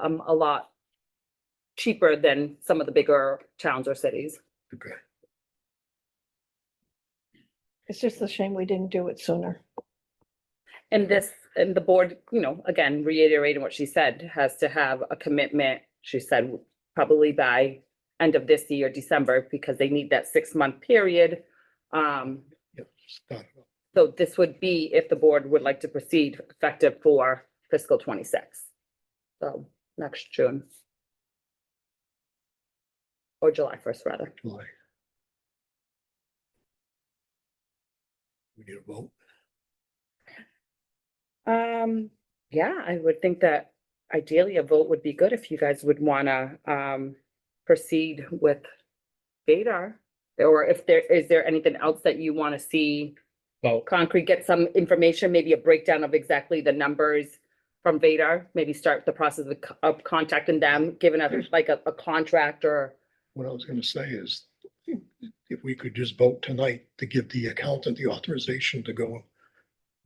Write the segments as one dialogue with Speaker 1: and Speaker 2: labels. Speaker 1: um, a lot cheaper than some of the bigger towns or cities.
Speaker 2: Okay.
Speaker 3: It's just a shame we didn't do it sooner.
Speaker 1: And this, and the board, you know, again, reiterating what she said, has to have a commitment, she said, probably by end of this year, December, because they need that six-month period. Um,
Speaker 2: Got it.
Speaker 1: so this would be if the board would like to proceed effective for fiscal twenty-six. So next June. Or July first, rather.
Speaker 2: July. We need a vote.
Speaker 1: Um, yeah, I would think that ideally a vote would be good if you guys would wanna, um, proceed with Vadar. Or if there, is there anything else that you wanna see
Speaker 4: Well,
Speaker 1: concrete, get some information, maybe a breakdown of exactly the numbers from Vadar? Maybe start the process of co- of contacting them, giving us like a, a contract or,
Speaker 2: What I was gonna say is, if we could just vote tonight to give the accountant the authorization to go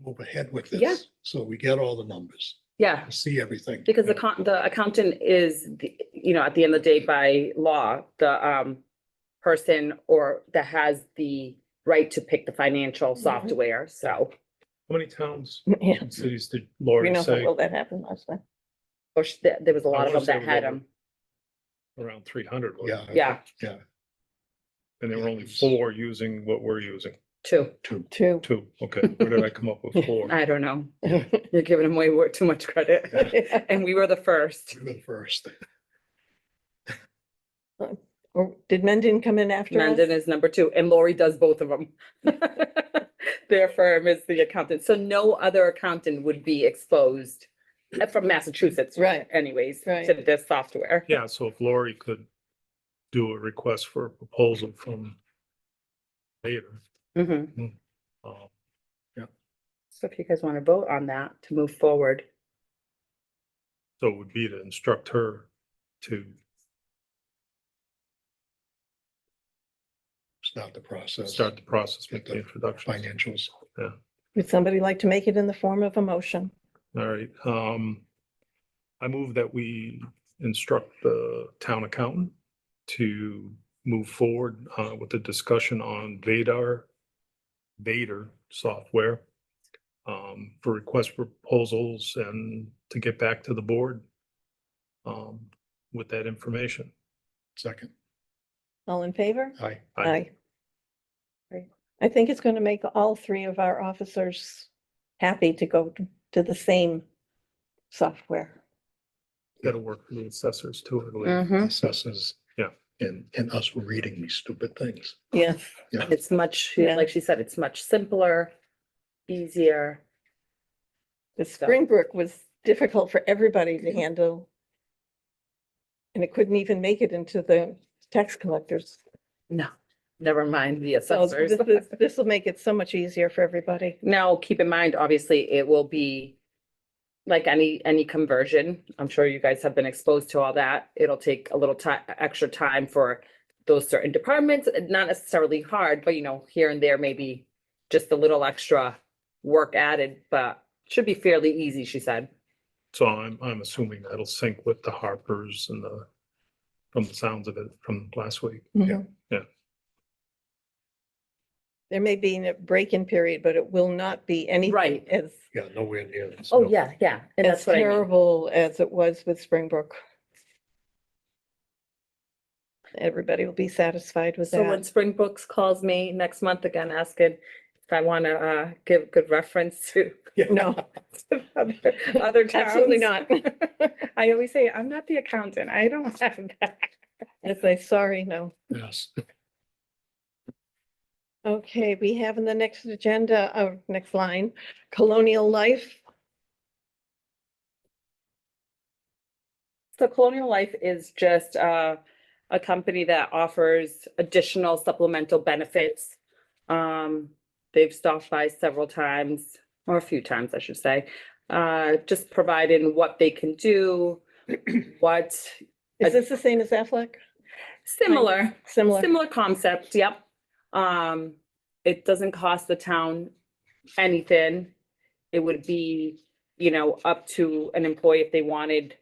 Speaker 2: move ahead with
Speaker 1: Yeah.
Speaker 2: this, so we get all the numbers,
Speaker 1: yeah.
Speaker 2: see everything.
Speaker 1: Because the con, the accountant is, the- you know, at the end of the day, by law, the um person or that has the right to pick the financial
Speaker 3: Mhm.
Speaker 1: software, so.
Speaker 4: how many towns
Speaker 3: Yeah,
Speaker 4: and cities did
Speaker 3: we
Speaker 4: Lori
Speaker 3: know
Speaker 4: say?
Speaker 3: how well that happened last time.
Speaker 1: Or sh- there, there was a lot of them
Speaker 4: wanna say
Speaker 1: that
Speaker 4: we
Speaker 1: had
Speaker 4: don't-
Speaker 1: them,
Speaker 4: Around three hundred,
Speaker 2: Yeah.
Speaker 1: yeah,
Speaker 4: and there were only four using what we're using,
Speaker 1: two,
Speaker 2: Two.
Speaker 3: Two.
Speaker 4: two, okay, where did I come up with four?
Speaker 1: I don't know. You're giving them way more, too much credit, and we were the first.
Speaker 2: We were the First.
Speaker 3: Or did Mendon come in after us?
Speaker 1: Mendon is number two, and Lori does both of them. Their firm is the accountant, so no other accountant would be exposed uh, from Massachusetts.
Speaker 3: Right.
Speaker 1: Anyways, to
Speaker 3: Right.
Speaker 1: this software.
Speaker 4: Yeah, so if Lori could do a request for a proposal from later.
Speaker 1: Mhm.
Speaker 4: um,
Speaker 1: So if you guys want to vote on that to move forward,
Speaker 4: So it would be to instruct her to,
Speaker 2: Start the process.
Speaker 4: start the process, make the
Speaker 2: Get
Speaker 4: introduction.
Speaker 2: Financials.
Speaker 3: Would somebody like to make it in the form of a motion?
Speaker 4: All right, um, I move that we instruct the town accountant to move forward, uh, with the discussion on Vadar, Vader software, um, for request proposals and to get back to the board, um, with that information.
Speaker 2: Second.
Speaker 3: All in favor?
Speaker 2: Aye.
Speaker 4: Aye.
Speaker 3: Great. I think it's going to make all three of our officers happy to go t- to the same software.
Speaker 4: That'll work for the assessors too, I believe.
Speaker 2: Mm-hmm.
Speaker 1: it's
Speaker 2: Assesses.
Speaker 4: Yeah.
Speaker 2: And, and us reading these stupid things.
Speaker 3: Yes.
Speaker 1: much,
Speaker 3: Yeah.
Speaker 1: like she said, it's much simpler, easier.
Speaker 3: The
Speaker 1: So-
Speaker 3: Springbrook was difficult for everybody to handle. And it couldn't even make it into the tax collectors.
Speaker 1: No, never mind the
Speaker 3: So
Speaker 1: assessors.
Speaker 3: this will make it so much easier for everybody.
Speaker 1: Now, keep in mind, obviously, it will be like any, any conversion. I'm sure you guys have been exposed to all that. It'll take a little time, extra time for those certain departments, uh, not necessarily hard, but you know, here and there, maybe just a little extra work added, but should be fairly easy, she said.
Speaker 4: So I'm, I'm assuming that'll sync with the Harpers and the, from the sounds of it from last week.
Speaker 3: Mhm.
Speaker 4: yeah.
Speaker 3: There may be a break-in period, but it will not be anything
Speaker 1: Right.
Speaker 3: as,
Speaker 2: Yeah, nowhere near. this.
Speaker 1: Oh,
Speaker 2: No.
Speaker 1: yeah, yeah. And
Speaker 3: as
Speaker 1: that's what I mean.
Speaker 3: terrible as it was with Springbrook. Everybody will be satisfied with
Speaker 1: So when
Speaker 3: that.
Speaker 1: Spring Books calls me next month again, asking if I want to, uh, give good reference to
Speaker 2: Yeah.
Speaker 3: No,
Speaker 1: other- other towns.
Speaker 3: Absolutely not.
Speaker 1: I always say, I'm not the accountant. I don't have that.
Speaker 3: I say, sorry, no.
Speaker 2: Yes.
Speaker 3: Okay, we have in the next agenda, oh, next line, colonial life.
Speaker 1: So Colonial Life is just uh, a company that offers additional supplemental benefits. Um, They've stopped by several times, or a few times, I should say, uh, just providing what they can do, what, I-
Speaker 3: Is this the same as Aflac?
Speaker 1: similar.
Speaker 3: Similar?
Speaker 1: Similar concept, yep. Um, it doesn't cost the town anything. It would be, you know, up to an employee if they wanted